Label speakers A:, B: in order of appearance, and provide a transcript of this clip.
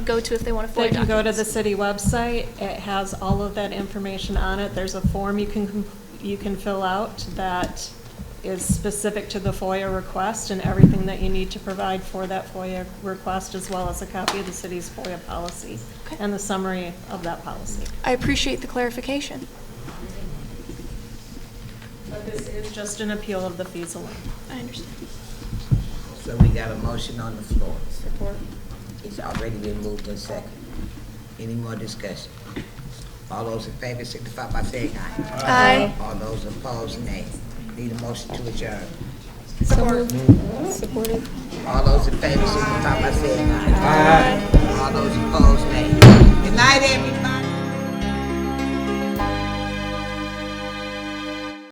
A: go to if they want to
B: They
A: forward
B: can go to the
A: documents.
B: city website, it has all of that information on it, there's a form you can, com- you can fill out that is specific to the FOIA request and everything that you need to provide for that FOIA request, as well as a copy of the city's FOIA policy
A: Okay.
B: and the summary of that policy.
A: I appreciate the clarification.
B: But this is just an appeal of the fees alone.
A: I understand.
C: So we got a motion on the floor. Support. It's already been moved and second. Any more discussion? All those in favor signify by saying aye.
A: Aye.
C: All those opposed, nay. Need a motion to adjourn. Support. All those in favor signify by saying aye. Aye. All those opposed, nay. Good night, everybody.